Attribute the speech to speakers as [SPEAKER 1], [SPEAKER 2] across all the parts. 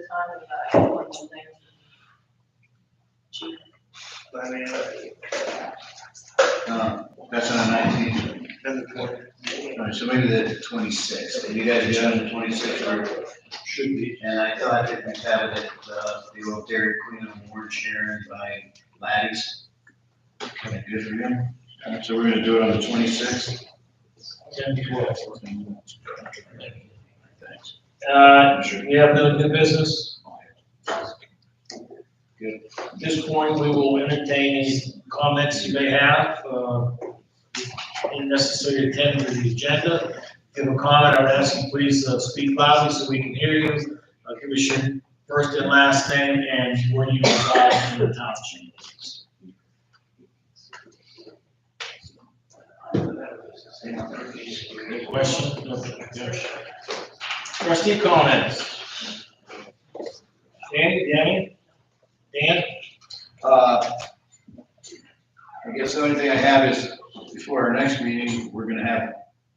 [SPEAKER 1] the time about one thing. Chief,
[SPEAKER 2] Um, That's on the nineteenth. All right, so maybe the twenty-sixth, you guys are doing the twenty-sixth, or,
[SPEAKER 3] Should be.
[SPEAKER 2] and I thought that we have it, uh, the old Dairy Queen Award sharing by Laddies. Okay, good for you. All right, so we're gonna do it on the twenty-sixth? Thanks.
[SPEAKER 3] Uh, we have no new business. At this point, we will entertain any comments you may have, uh, in necessary attend to the agenda. If you have a comment, I would ask you please uh, speak loudly so we can hear you. Uh, give us your first and last name and where you reside in the township. Any questions? No. Yes. Trustee comments? Dan, Danny? Dan?
[SPEAKER 2] Uh, I guess the only thing I have is, before our next meeting, we're gonna have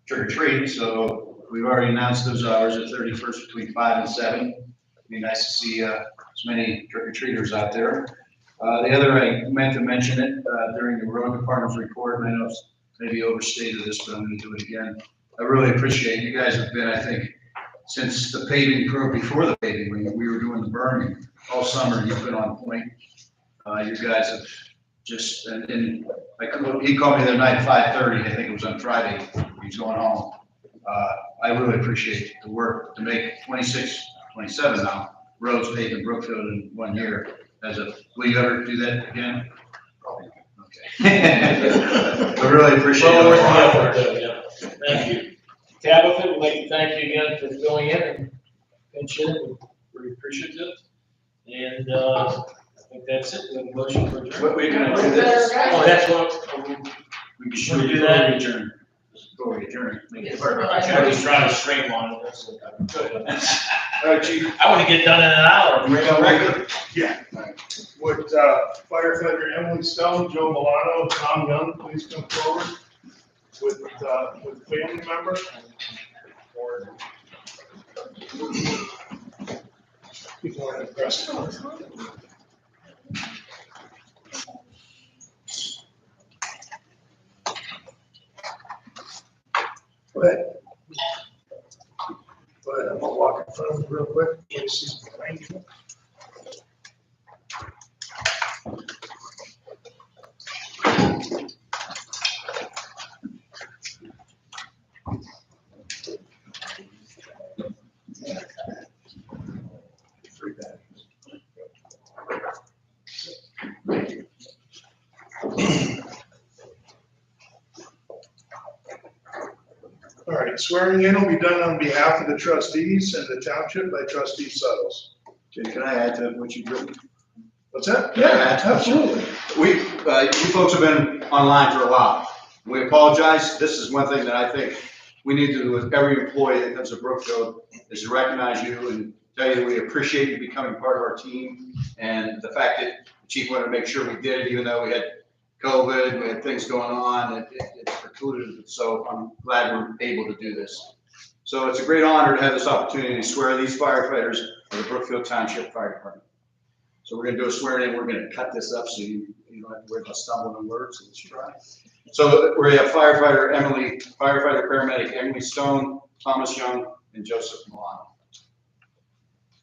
[SPEAKER 2] trick or treat, so we've already announced those hours at thirty-first between five and seven. It'd Be nice to see, uh, as many trick or treaters out there. Uh, the other, I meant to mention it, uh, during the road department's report, and I know it's maybe overstated this, but I'm gonna do it again. I really appreciate, you guys have been, I think, since the paving pro, before the paving, when we were doing the burning, all summer, you've been on point. Uh, you guys have just, and, and I called- he called me the other night, five thirty, I think it was on Friday, he's going home. Uh, I really appreciate the work to make 26, 27 now, roads paved in Brookfield in one year. As a, will you ever do that again? Probably. Okay. I really appreciate
[SPEAKER 3] Well worth
[SPEAKER 2] it.
[SPEAKER 3] the effort, though, yeah. Thank you. Tabitha, we'd like to thank you again for filling in and pinching, we appreciate it. And, uh, I think that's it, we have a motion for adjournment.
[SPEAKER 2] What we're gonna do this,
[SPEAKER 3] Oh, that's what,
[SPEAKER 2] we be
[SPEAKER 3] Should
[SPEAKER 2] sure
[SPEAKER 3] we
[SPEAKER 2] to
[SPEAKER 3] do
[SPEAKER 2] do
[SPEAKER 3] that?
[SPEAKER 2] that adjourn. Before we adjourn. make it perfect.
[SPEAKER 3] actually, I was trying to streamline it, that's what I'm doing.
[SPEAKER 4] Uh, chief,
[SPEAKER 3] I wanna get done in an hour.
[SPEAKER 4] we got record? Yeah. Would, uh, firefighter Emily Stone, Joe Milano, Tom Young, please come forward with, uh, with family member? Or- He's more aggressive. Go ahead. Go ahead, I'm gonna walk in front of him real quick. This is behind you. All right, swearing in will be done on behalf of the trustees and the township by trustee Suddles.
[SPEAKER 2] Okay, Can I add to what you've written?
[SPEAKER 4] What's that?
[SPEAKER 2] Yeah, absolutely. We, uh, you folks have been online for a while. We apologize. This is one thing that I think we need to do with every employee that comes to Brookfield is to recognize you and tell you we appreciate you becoming part of our team. And the fact that the chief wanted to make sure we did it, even though we had COVID, we had things going on, it, it it precluded. it. So I'm glad we're able to do this. So it's a great honor to have this opportunity to swear these firefighters of the Brookfield Township Fire Department. So we're gonna do a swearing in, we're gonna cut this up so you, you don't have to worry about stumbling words, let's try. So we have firefighter Emily, firefighter paramedic Emily Stone, Thomas Young, and Joseph Milano.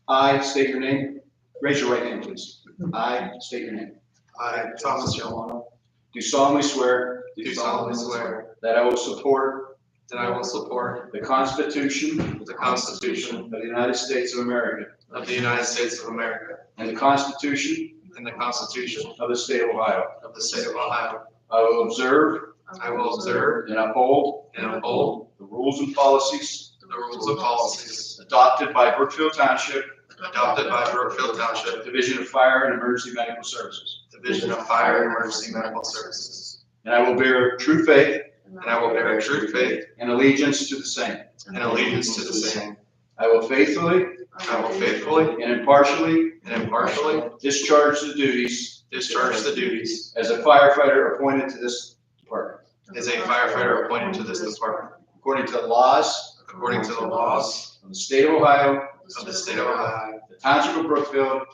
[SPEAKER 2] I state your name, raise your right hand, please. I state your name.
[SPEAKER 5] I, Thomas Yolano,
[SPEAKER 2] Do solemnly swear
[SPEAKER 5] do solemnly swear
[SPEAKER 2] that I will support
[SPEAKER 5] that I will support
[SPEAKER 2] the Constitution
[SPEAKER 5] the
[SPEAKER 2] of
[SPEAKER 5] Constitution
[SPEAKER 2] the United States of America
[SPEAKER 5] of the United States of America
[SPEAKER 2] and the Constitution
[SPEAKER 5] and the Constitution
[SPEAKER 2] of the State of Ohio.
[SPEAKER 5] of the State of Ohio.
[SPEAKER 2] I will observe
[SPEAKER 5] I will observe
[SPEAKER 2] and uphold
[SPEAKER 5] and uphold
[SPEAKER 2] the rules and policies
[SPEAKER 5] the rules and policies
[SPEAKER 2] adopted by Brookfield Township
[SPEAKER 5] adopted by Brookfield Township
[SPEAKER 2] Division of Fire and Emergency Medical Services.
[SPEAKER 5] Division of Fire and Emergency Medical Services.
[SPEAKER 2] And I will bear true faith
[SPEAKER 5] And I will bear true faith
[SPEAKER 2] and allegiance to the same.
[SPEAKER 5] and allegiance to the same.
[SPEAKER 2] I will faithfully
[SPEAKER 5] I will faithfully
[SPEAKER 2] and impartially
[SPEAKER 5] and impartially
[SPEAKER 2] discharge the duties
[SPEAKER 5] discharge the duties
[SPEAKER 2] as a firefighter appointed to this department,
[SPEAKER 5] as a firefighter appointed to this department
[SPEAKER 2] according to the laws
[SPEAKER 5] according to the laws
[SPEAKER 2] of the state of Ohio
[SPEAKER 5] of the of the state of Ohio,
[SPEAKER 2] the Township of Brookfield,